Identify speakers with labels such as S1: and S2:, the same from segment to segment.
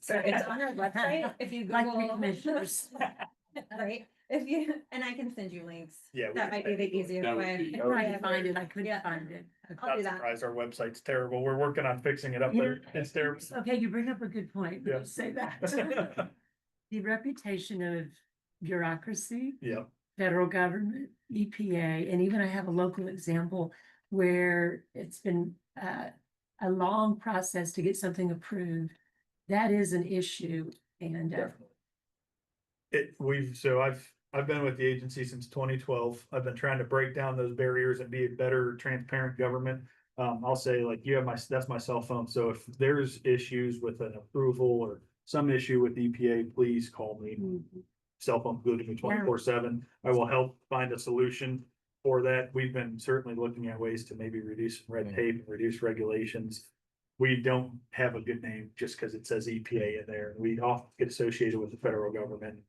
S1: So it's on our website, if you
S2: Like
S1: Google.
S2: the commissioners.
S1: Right, if you, and I can send you links.
S3: Yeah. we
S1: That might be
S3: can-
S1: the easiest
S4: That would
S1: way.
S4: be-
S2: I
S4: Oh,
S2: tried
S1: yeah.
S2: to find it, I couldn't
S1: Yeah.
S2: find it.
S1: I'll
S3: Not
S1: do that.
S3: surprised our website's terrible. We're working on fixing it up there.
S2: Yeah.
S3: It's terrible.
S2: Okay, you bring up a good point.
S3: Yeah.
S2: Say that. The reputation of bureaucracy,
S3: Yeah,
S2: federal government, EPA, and even I have a local example where it's been uh, a long process to get something approved. That is an issue and uh,
S3: definitely. It, we've, so I've, I've been with the agency since twenty twelve. I've been trying to break down those barriers and be a better transparent government. Um, I'll say like, you have my, that's my cell phone. So if there's issues with an approval or some issue with EPA, please call me.
S1: Hmm.
S3: cell phone glued to me twenty-four seven. I will help find a solution for that. We've been certainly looking at ways to maybe reduce red
S5: Mhm.
S3: tape, and reduce regulations. We don't have a good name just because it says EPA in there. We often get associated with the federal government.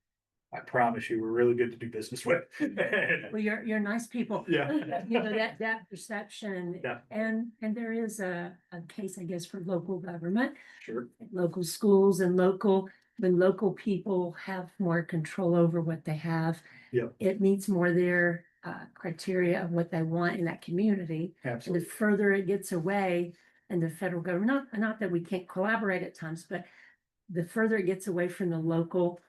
S3: I promise you, we're really good to do business with.
S2: well, you're, you're nice people.
S3: Yeah.
S2: You know, that, that perception.
S3: Yeah.
S2: And, and there is a, a case, I guess, for local government
S3: Sure.
S2: local schools and local, when local people have more control over what they have.
S3: Yep.
S2: It meets more their uh criteria of what they want in that community. And the
S3: Absolutely.
S2: further it gets away and the federal government, not not that we can't collaborate at times, but the further it gets away from the local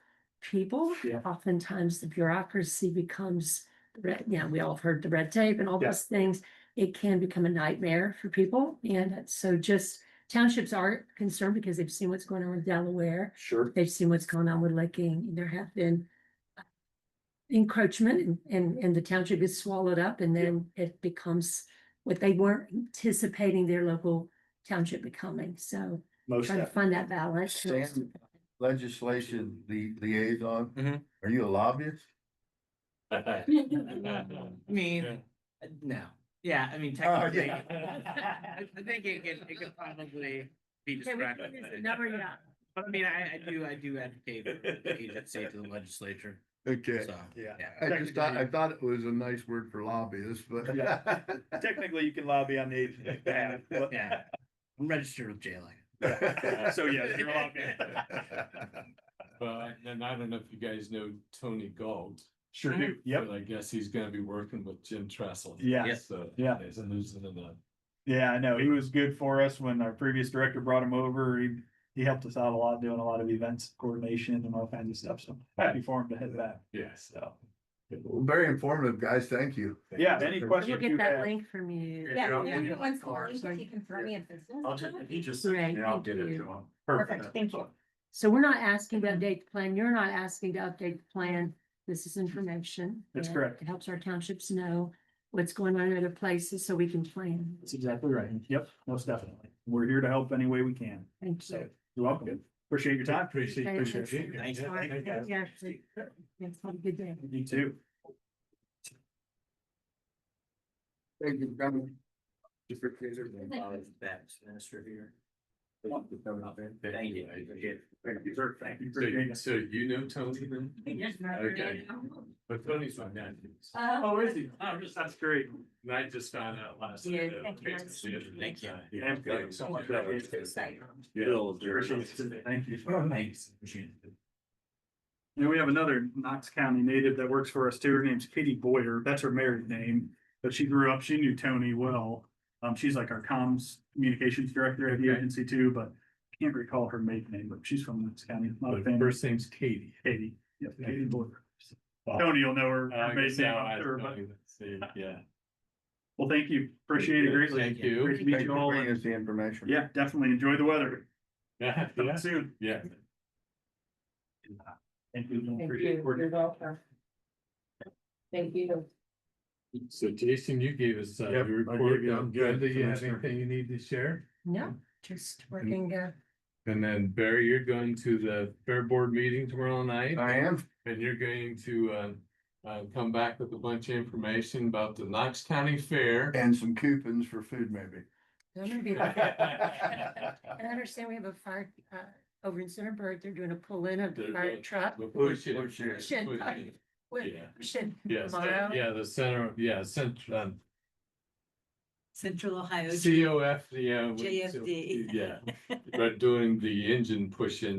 S2: people,
S3: Yeah.
S2: oftentimes the bureaucracy becomes red, yeah, we all have heard the red tape and all
S3: Yeah.
S2: those things. It can become a nightmare for people. And so just townships are concerned because they've seen what's going on with Delaware.
S3: Sure.
S2: They've seen what's going on with Licking. There have been uh, encroachment and, and, and the township gets swallowed up and then it becomes what they weren't anticipating their local township becoming. So
S3: Most
S2: trying to
S3: definitely.
S2: find that balance.
S5: Sam, legislation li- liaison,
S4: Mhm.
S5: are you a lobbyist?
S6: I mean, uh, no, yeah, I mean technically.
S3: yeah.
S6: I I think it could, it could probably be
S2: Okay, we
S6: described.
S2: can use the number, yeah.
S6: But I mean, I, I do, I do advocate for the agency to the legislature,
S5: Okay.
S6: so.
S3: Yeah.
S5: I just thought, I
S3: Technically-
S5: thought it was a nice word for lobbyist, but.
S3: Yeah. Technically, you can lobby on the agency's behalf. but-
S6: Yeah, I'm registered with JLA.
S3: So, yeah, you're a lobbyist.
S4: But, and I don't know if you guys know Tony Gold.
S3: Sure do. Yep.
S4: But I guess he's gonna be working with Jim Tressel.
S3: Yeah.
S6: Yeah.
S4: So.
S3: Yeah.
S4: There's a losing in the.
S3: Yeah, I know. He was good for us when our previous director brought him over. He, he helped us out a lot doing a lot of events coordination and all kinds of stuff. So happy for him to head back.
S4: Yes.
S3: So,
S5: Well, Very informative, guys. Thank you.
S3: yeah, any
S2: We'll
S3: questions
S2: get
S3: you
S2: that
S3: have?
S2: link from you.
S1: Yeah,
S3: I'll
S1: if
S3: give you
S1: anyone wants to
S3: card,
S1: link,
S3: so
S1: if you can throw me a business card.
S4: he just.
S2: Great, yeah, I'll thank get it to you.
S4: him.
S1: Perfect, thank you.
S2: So we're not asking to update the plan. You're not asking to update the plan. This is information.
S3: That's
S2: and
S3: correct.
S2: It helps our townships know what's going on in other places so we can plan.
S3: That's exactly right. Yep, most definitely. We're here to help any way we can.
S2: Thank
S3: So
S2: you.
S3: you're welcome. Appreciate your time.
S4: Appreciate-
S2: Okay,
S4: appreciate
S2: thanks.
S4: you.
S6: Thanks.
S4: Yeah, thank you.
S2: Yeah, actually, yes, have a good day.
S3: You too.
S5: Thank you for coming.
S6: minister here.
S3: Thank
S6: Thank you.
S3: Thank you, sir. Thank you.
S4: So you- So you know Tony then? Okay. But Tony's my nephew.
S1: Uh,
S3: Oh, is he? Oh, That's great.
S4: And I just found out last.
S2: Yeah,
S4: night, uh,
S2: thank you.
S4: basically, it was,
S6: Thank you.
S4: uh,
S3: Yeah, thank you so much. That is
S1: exciting.
S4: Yeah.
S3: Appreciate it. Thank you.
S6: Thanks. Appreciate it.
S3: And we have another Knox County native that works for us too. Her name's Kitty Boyer. That's her married name. But she grew up, she knew Tony well. Um, she's like our comms communications director at the
S4: Okay.
S3: agency too, but can't recall her maiden name, but she's from Knox County. Not a
S4: But
S3: fan.
S4: First name's Katie.
S3: Katie. Yep, Katie Boyer.
S4: Wow.
S3: Tony will know her. her
S4: Uh, I guess
S3: maiden name,
S4: now
S3: I'm
S4: I-
S3: sure, but-
S4: see, Yeah.
S3: Well, thank you. Appreciate it greatly.
S4: Thank you.
S3: Great to meet
S5: Thank you
S3: you
S5: for
S3: all.
S5: bringing
S3: and
S5: us the information.
S3: Yeah, definitely enjoy the weather.
S4: Yeah,
S3: Talk Soon.
S4: yeah.
S3: Thank you. Appreciate it. We're-
S2: Thank you.
S4: So Jason, you gave us uh,
S5: Yep,
S4: your
S5: I
S4: report.
S5: gave you a
S4: I'm
S5: good
S4: good. Do you have
S5: semester.
S4: anything you need to share?
S2: No, just
S4: Mm-hmm.
S2: working, uh,
S4: And then Barry, you're going to the fair board meeting tomorrow night
S5: I am.
S4: and you're going to uh. Uh, come back with a bunch of information about the Knox County Fair.
S5: And some coupons for food maybe.
S2: I'm gonna be there. And I understand we have a fire, uh, over in Centerburg, they're doing a pull-in of the
S4: They're
S2: fire
S4: doing-
S2: truck.
S4: We'll push it.
S5: Push it.
S4: Push it.
S2: with-
S4: yeah.
S2: should
S4: Yes,
S2: tomorrow.
S4: yeah, the center, yeah, cent- um,
S7: Central Ohio.
S4: COF, yeah. we-
S7: JFD.
S4: Yeah, but doing the engine push-in